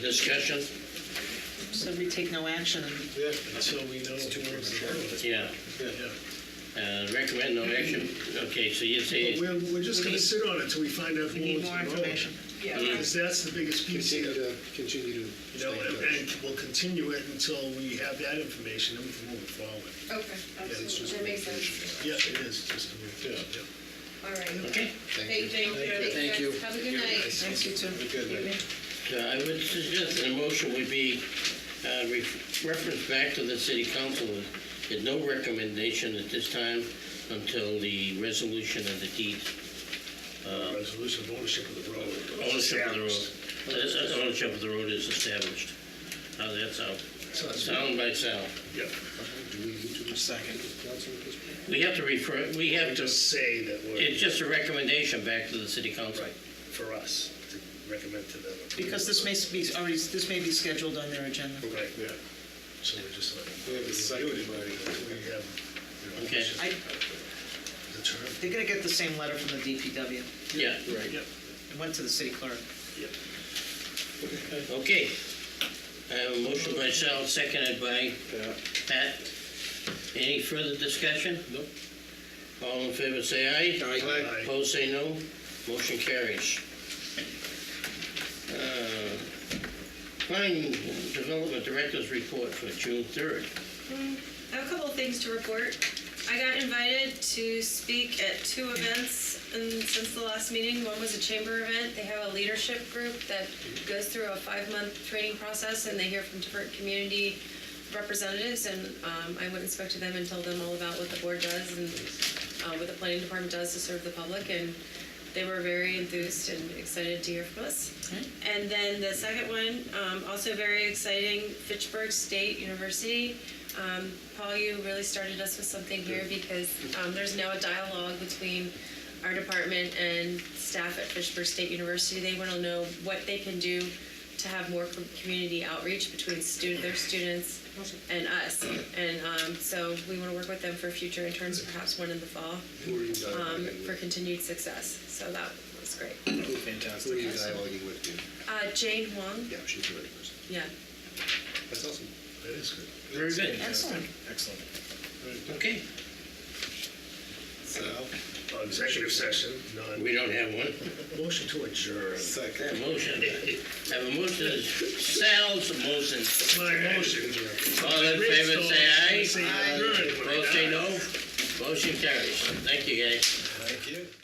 discussion? So we take no action. Yeah, until we know. But Yeah, uh, recommend no action. Okay, so you say, we're, we're just gonna We need- sit on it till we find out. We need more information. Yeah, Because that's the biggest piece Continue here, to, continue to. you know, and and we'll continue it until we have that information, then we can move it forward. okay, absolutely, that makes sense. Yeah, it is, just, yeah, yeah. All right. okay. Hey, Thank you. thank you. Thank you. Have a good night. Thanks, you too. Good night. So I would suggest that a motion would be uh, re- reference back to the city council. There's no recommendation at this time until the resolution of the deed, Resolution of ownership of the road. Um, ownership of the road. Uh, uh, Ownership of the road is established. How that sound? Sound by sound. Yeah, Do we need to do second? We have to refer, we have to, just say that it's we're, just a recommendation back to the city council. right, for us, to recommend to them. Because this may be, already, this may be scheduled on their agenda. Right, yeah. So we're just like. We have a second already. We have. you know, Okay. I, The term. they're gonna get the same letter from the DPW. Yeah, Right. Yep, It went to the city clerk. yep. okay. I have a motion by Sal, seconded by Yeah. Pat. Any further discussion? Nope. All in favor, say aye. Aye. Aye. Opposed, say no. Motion carries. Uh, Planning Development Director's Report for June 3rd. I have a couple of things to report. I got invited to speak at two events and since the last meeting. One was a chamber event. They have a leadership group that goes through a five-month training process and they hear from different community representatives. And um, I went and spoke to them and told them all about what the board does and uh, what the planning department does to serve the public. And they were very enthused and excited to hear from us. And then the second one, um, also very exciting, Fitchburg State University. Um, Paul, you really started us with something here because um, there's now a dialogue between our department and staff at Fitchburg State University. They want to know what they can do to have more com- community outreach between student, their students and us. And um, so we want to work with them for future interns, perhaps one in the fall, Who are you um, dialoguing for with? continued success. So that was great. Fantastic. Who are you dialoguing with, dude? Uh, Jane Huang, Yeah, she's the right person. yeah. That's awesome. That is good. Very good. Excellent. Excellent. Okay, So, Uh, Executive session, non, we don't have one. motion to adjourn. Have a second. motion. Have a motion, Sal's motion. My motion. All in favor, say aye. Say aye. Opposed, say no. Motion carries. Thank you, guys.